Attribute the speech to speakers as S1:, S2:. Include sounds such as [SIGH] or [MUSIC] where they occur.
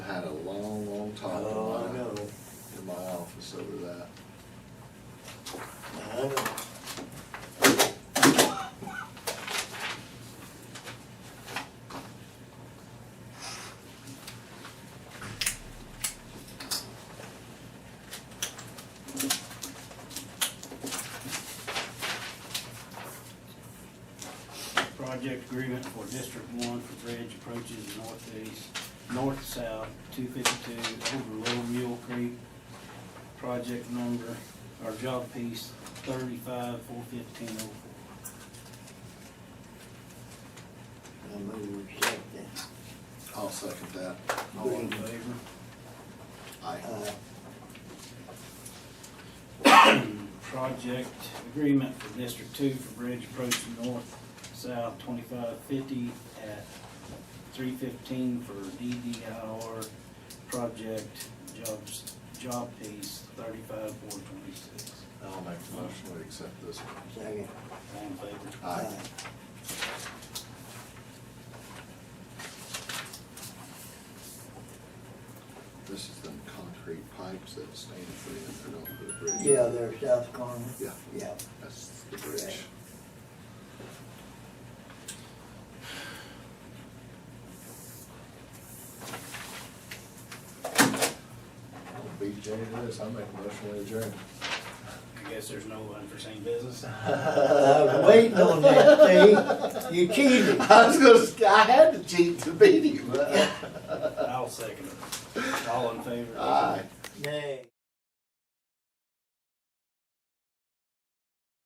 S1: Oh,
S2: project agreement for District One for bridge approaches northeast, north-south, two fifty-two over Little Mule Creek. Project number, or job piece thirty-five, four fifteen oh four.
S1: I move we accept that.
S3: I'll second that.
S2: All in favor?
S3: Aye.
S1: Uh,
S2: Project agreement for District Two for bridge approach north-south twenty-five fifty at three fifteen for DDIR project jobs, job piece thirty-five four twenty-six.
S3: I'll make the motion, we accept this one.
S1: second.
S2: All in favor?
S3: Aye. This is them concrete pipes that stand free and they're not for the bridge.
S1: Yeah, they're south corner.
S3: Yeah.
S1: Yeah.
S3: That's the bridge. I'll beat Jenny to this, I'll make a motion, we adjourn.
S2: I guess there's no unforeseen business. [LAUGHS]
S1: I [LAUGHS] was waiting on that, see? You
S3: [LAUGHS]
S1: cheated.
S3: I was gonna, sk- I had to cheat to beat you.
S2: I'll second it. All in favor?
S3: Aye.
S1: Nay.